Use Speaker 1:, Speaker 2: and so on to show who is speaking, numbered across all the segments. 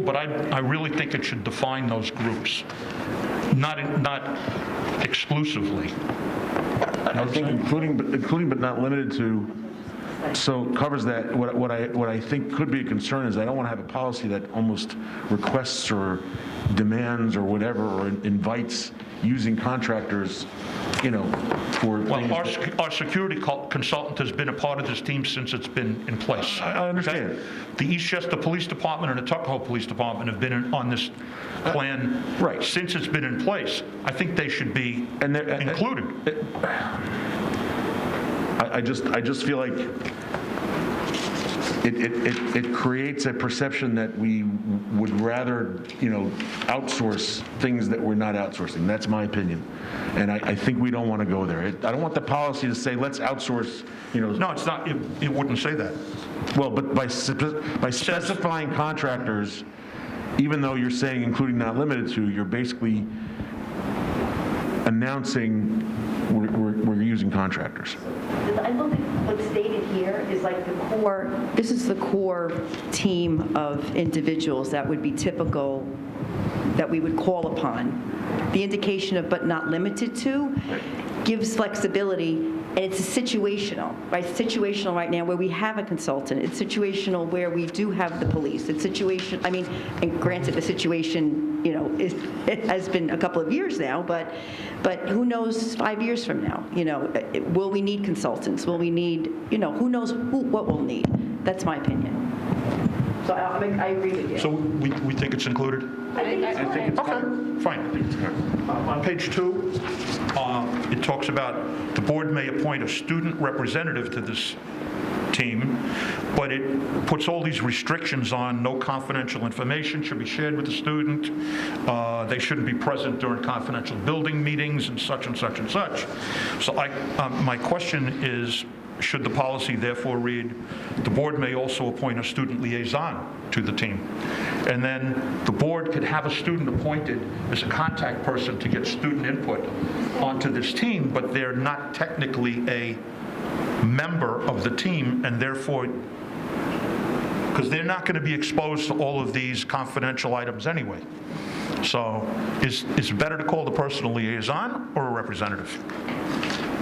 Speaker 1: But I, I really think it should define those groups, not, not exclusively.
Speaker 2: I think including, but including but not limited to, so covers that, what what I, what I think could be a concern is I don't want to have a policy that almost requests or demands or whatever, or invites using contractors, you know, for things
Speaker 1: Well, our,
Speaker 2: that-
Speaker 1: sec- our security co- consultant has been a part of this team since it's been in place.
Speaker 2: I understand.
Speaker 1: Okay? The Eastchester Police Department and the Tuckahoe Police Department have been in- on this plan.
Speaker 2: Uh, Right.
Speaker 1: Since it's been in place. I think they should be
Speaker 2: And they're- uh, and-
Speaker 1: included.
Speaker 2: I, I just, I just feel like it, it, it- it creates a perception that we would rather, you know, outsource things that we're not outsourcing. That's my opinion. And I, I think we don't want to go there. It- I don't want the policy to say, let's outsource, you know,
Speaker 1: No, it's not, it it wouldn't say that.
Speaker 2: well, but by, spe- by specifying contractors, even though you're saying including not limited to, you're basically announcing we're, we're, we're using contractors.
Speaker 3: I don't think what's stated here is like the core, this is the core team of individuals that would be typical, that we would call upon. The indication of but not limited to gives flexibility, and it's situational, right? It's Situational right now where we have a consultant. It's situational where we do have the police. It's situation, I mean, and granted, the situation, you know, is, it has been a couple of years now, but, but who knows five years from now? You know, eh, will we need consultants? Will we need, you know, who knows who, what we'll need? That's my opinion. So I, I'm- I agree with you.
Speaker 1: So we, we think it's included? Okay, fine. On page two, uh, it talks about the board may appoint a student representative to this team, but it puts all these restrictions on no confidential information should be shared with the student, uh, they shouldn't be present during confidential building meetings and such and such and such. So I, um, my question is, should the policy therefore read, "The board may also appoint a student liaison to the team"? And then the board could have a student appointed as a contact person to get student input onto this team, but they're not technically a member of the team, and therefore, because they're not going to be exposed to all of these confidential items anyway. So is it's better to call the personal liaison or a representative?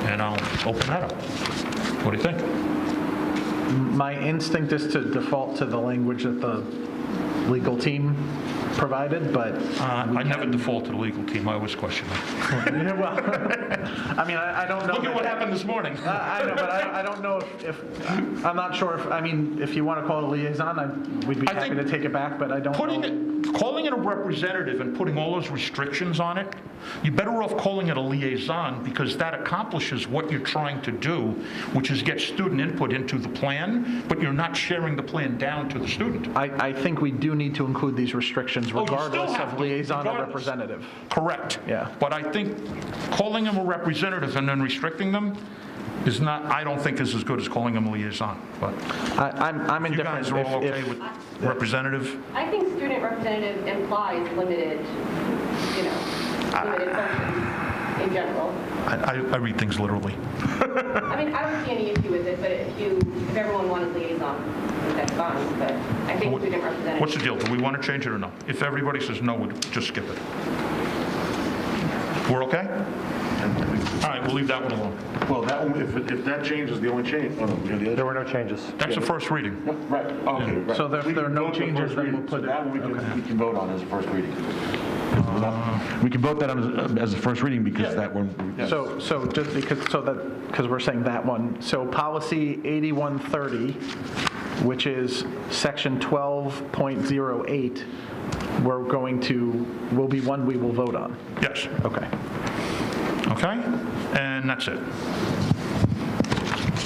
Speaker 1: And I'll open that up. What do you think?
Speaker 4: My instinct is to default to the language that the legal team provided, but, um,
Speaker 1: Uh, I never default to the legal team, I always question them.
Speaker 4: Yeah, well, I mean, I I don't know.
Speaker 1: Look at what happened this morning.
Speaker 4: Uh, I I know, but I I don't know if- if, I'm not sure if, I mean, if you want to call it a liaison, I- we'd be
Speaker 1: I
Speaker 4: happy
Speaker 1: think
Speaker 4: to take it back, but I don't know.
Speaker 1: Putting it, calling it a representative and putting all those restrictions on it, you're better off calling it a liaison because that accomplishes what you're trying to do, which is get student input into the plan, but you're not sharing the plan down to the student.
Speaker 4: I I think we do need to include these restrictions
Speaker 1: Oh, you still
Speaker 4: regardless
Speaker 1: have
Speaker 4: of
Speaker 1: to,
Speaker 4: liaison or
Speaker 1: regardless.
Speaker 4: representative.
Speaker 1: Correct.
Speaker 4: Yeah.
Speaker 1: But I think calling them a representative and then restricting them is not, I don't think is as good as calling them a liaison. But
Speaker 4: I- I'm I'm
Speaker 1: you
Speaker 4: indifferent.
Speaker 1: guys are all
Speaker 4: if-
Speaker 1: okay
Speaker 4: if-
Speaker 1: with representative?
Speaker 5: I think student representative implies limited, you know,
Speaker 4: Ah.
Speaker 5: limited functions in general.
Speaker 1: I, I- I read things literally.
Speaker 5: I mean, I don't see any issue with it, but if you, if everyone wanted liaison, that's fine, but I think student representative.
Speaker 1: What's the deal? Do we want to change it or no? If everybody says no, we'd just skip it. We're okay? All right, we'll leave that one alone.
Speaker 2: Well, that one, if, if that change is the only change, oh, no, we got the other.
Speaker 6: There were no changes.
Speaker 1: That's the first reading.
Speaker 2: Right, okay, right.
Speaker 4: So if
Speaker 2: We
Speaker 4: there are
Speaker 2: can
Speaker 4: no
Speaker 2: vote the
Speaker 4: changes,
Speaker 2: first
Speaker 4: then
Speaker 2: reading.
Speaker 4: we'll put
Speaker 2: So
Speaker 4: it-
Speaker 2: That one we can, we can vote on as a first reading. We can vote that on as, as a first reading because that one.
Speaker 4: Um, So, so just because, so that, because we're saying that one, so policy 8130, which is section 12.08, we're going to, will be one we will vote on.
Speaker 1: Yes,
Speaker 4: Okay.
Speaker 1: okay? And that's it.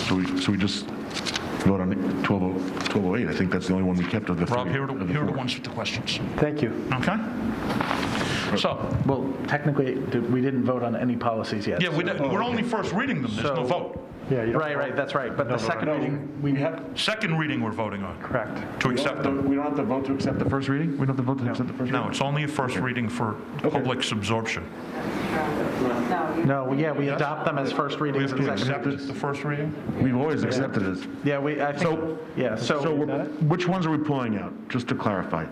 Speaker 2: So we, so we just vote on oh, 12 1208, I think that's the only one we kept of the three.
Speaker 1: Rob, here are the
Speaker 2: of the
Speaker 1: here are the
Speaker 2: four.
Speaker 1: ones with the questions,
Speaker 6: Thank you.
Speaker 1: okay? So,
Speaker 4: Well, technically, did- we didn't vote on any policies yet.
Speaker 1: yeah, we- we're only first reading them, there's no
Speaker 4: So-
Speaker 1: vote.
Speaker 6: Yeah, you don't
Speaker 4: Right, right, that's right, but the second reading,
Speaker 2: We have,
Speaker 1: Second reading we're voting on,
Speaker 6: correct.
Speaker 1: to
Speaker 2: we
Speaker 1: accept them.
Speaker 2: don't have to vote to accept the first reading? We don't have to vote to accept the first reading?
Speaker 1: No, it's only a first reading for public's absorption.
Speaker 4: no, yeah, we adopt them as first
Speaker 1: We
Speaker 4: readings
Speaker 1: have
Speaker 4: and
Speaker 1: to
Speaker 4: second.
Speaker 1: accept the first reading?
Speaker 2: We've always accepted it.
Speaker 4: Yeah, we, I think, yeah, so.
Speaker 2: So we're- which ones are we pulling out, just to clarify?